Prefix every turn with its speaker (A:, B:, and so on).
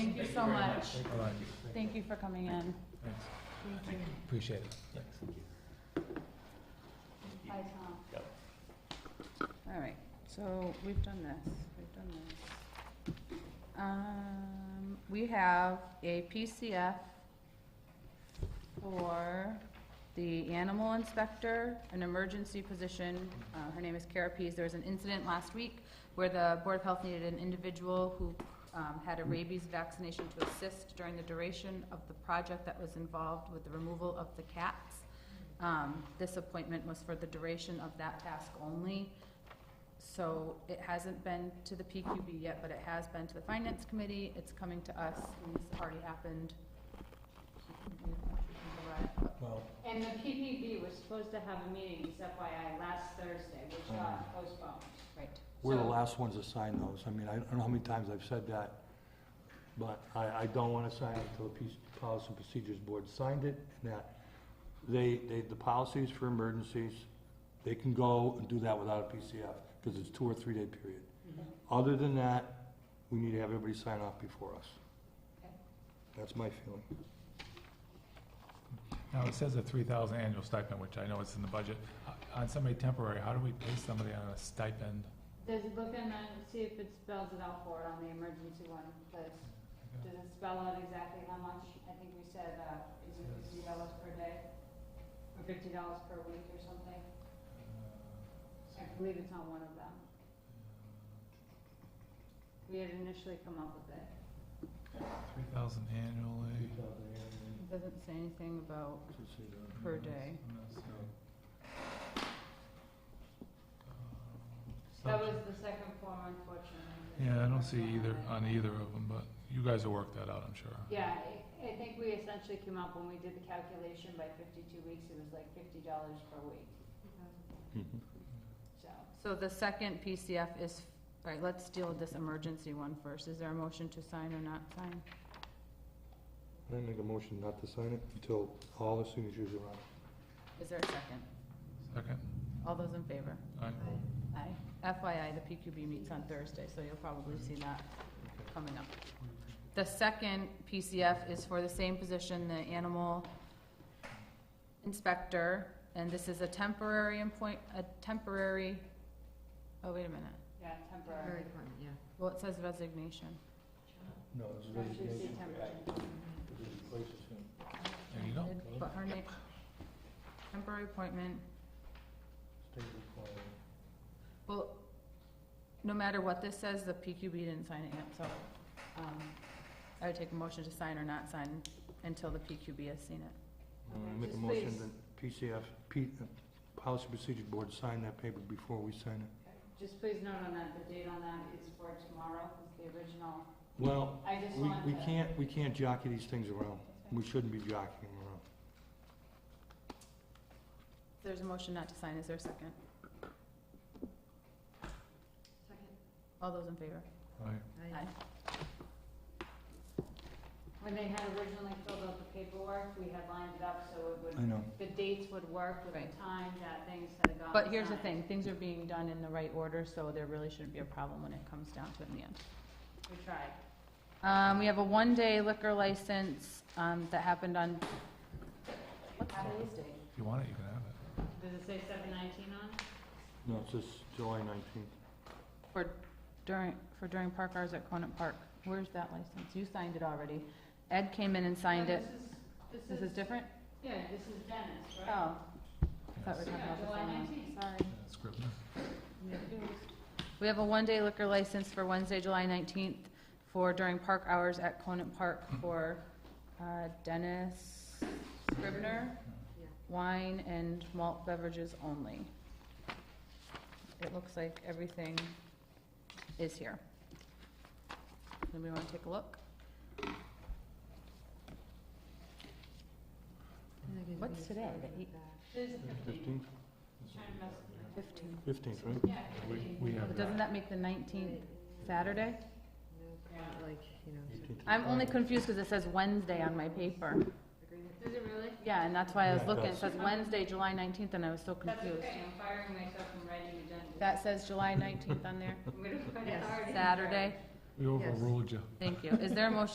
A: you
B: Thank
A: so
B: very
A: much.
C: All right,
A: Thank you for coming in.
C: thanks,
A: Thank you.
C: appreciate it.
A: Hi, Tom.
B: Yep.
A: All right, so we've done this, we've done this. Um, we have a PCF for the animal inspector, an emergency position. Uh, her name is Kara Pease. There was an incident last week where the Board of Health needed an individual who, um, had a rabies vaccination to assist during the duration of the project that was involved with the removal of the cats. Um, This appointment was for the duration of that task only. So it hasn't been to the PQB yet, but it has been to the Finance Committee. It's coming to us, and this already happened.
C: Well,
D: And the PPP was supposed to have a meeting, this FYI, last Thursday, which got postponed.
A: Right.
E: We're the
D: So-
E: last ones to sign those. I mean, I don't know how many times I've said that, but I, I don't want to sign it until the Peace- Policy and Procedures Board signed it, and that they, they, the policies for emergencies, they can go and do that without a PCF, because it's two or three day period. Other than that, we need to have everybody sign off before us.
A: Okay.
E: That's my feeling.
C: now it says a three thousand annual stipend, which I know is in the budget. Uh, On somebody temporary, how do we pay somebody on a stipend?
D: Does it look in the, see if it spells it out for it on the emergency one, does, does it spell out exactly how much? I think we said, uh, is it fifty dollars per day? Or fifty dollars per week or something? I believe it's on one of them. We had initially come up with it.
C: Three thousand annually. Mm-hmm.
A: It doesn't say anything about per day.
D: That was the second form unfortunately.
C: uh, Yeah, I don't see either, on either of them, but you guys will work that out, I'm sure.
D: Yeah, I, I think we essentially came up, when we did the calculation by fifty-two weeks, it was like fifty dollars per week,
E: Mm-hmm.
D: so.
A: So the second PCF is, all right, let's deal with this emergency one first. Is there a motion to sign or not sign?
E: I make a motion not to sign it until all the signatures are on.
A: Is there a second?
C: Second,
A: All those in favor?
C: all right,
A: Aye. FYI, the PQB meets on Thursday, so you'll probably see that coming up. The second PCF is for the same position, the animal inspector, and this is a temporary appoint, a temporary, oh, wait a minute.
D: Yeah, temporary.
A: Well, it says resignation.
E: No, it's a
D: Actually, it's
E: resignation.
D: temporary.
E: It replaces him.
C: there you go.
A: But her name, temporary appointment,
E: State requirement.
A: well, no matter what this says, the PQB didn't sign it yet, so, um, I would take a motion to sign or not sign until the PQB has seen it.
E: Uh,
D: Okay,
E: I make a
D: just
E: motion
D: please.
E: that PCF, P, uh, Policy Procedure Board sign that paper before we sign it.
D: Just please note on that, the date on that is for tomorrow, is the original,
E: Well,
D: I just
E: we,
D: wanted to.
E: we can't, we can't jockey these things around. We shouldn't be jockeying around.
A: There's a motion not to sign, is there a second? All those in favor?
C: All right.
A: Aye.
D: When they had originally filled out the paperwork, we had lined it up so it
E: I
D: would,
E: know.
D: the dates would work with the
A: Right.
D: time that things had gone.
A: But here's the
D: signed.
A: thing, things are being done in the right order, so there really shouldn't be a problem when it comes down to it in the end.
D: We tried.
A: Um, we have a one-day liquor license, um, that happened on, what's
D: Happy
A: today's date?
C: If you want it, you can have it.
D: Does it say seven nineteen on? it?
E: No, it's just July nineteenth.
A: For during, for during park hours at Conant Park. Where's that license? You signed it already. Ed came in and signed
D: No,
A: it.
D: This is,
A: This is different?
D: yeah, this is Dennis,
A: Oh,
D: right?
A: I thought we were talking
D: Yeah,
A: about the
D: July
A: same one.
D: nineteenth.
A: Sorry.
C: Yeah, Scrivener.
A: We have a one-day liquor license for Wednesday, July 19th for during park hours at Conant Park for uh, Dennis Scribner, wine and malt beverages only. It looks like everything is here. Anybody want to take a look? What's today, the eight-
D: There's a fifteen.
E: Fifteenth?
D: Trying to mess with it.
E: Fifteenth, right?
D: Yeah,
C: We,
D: fifteen.
C: we have
A: But
C: that.
A: Doesn't that make the 19th Saturday?
D: Yeah.
F: Like, you know,
E: 18th.
A: I'm only confused because it says Wednesday on my paper.
F: agreement.
D: Does it really?
A: Yeah, and that's why I was
E: Yeah,
A: looking, it
E: that's-
A: says Wednesday, July nineteenth, and I was so
D: That's
A: confused.
D: okay, I'm firing myself from writing agendas.
A: That says July nineteenth on there,
D: I'm gonna put it
F: Yes.
D: hard in.
A: Saturday,
C: We overruled you.
A: thank you. Is there a motion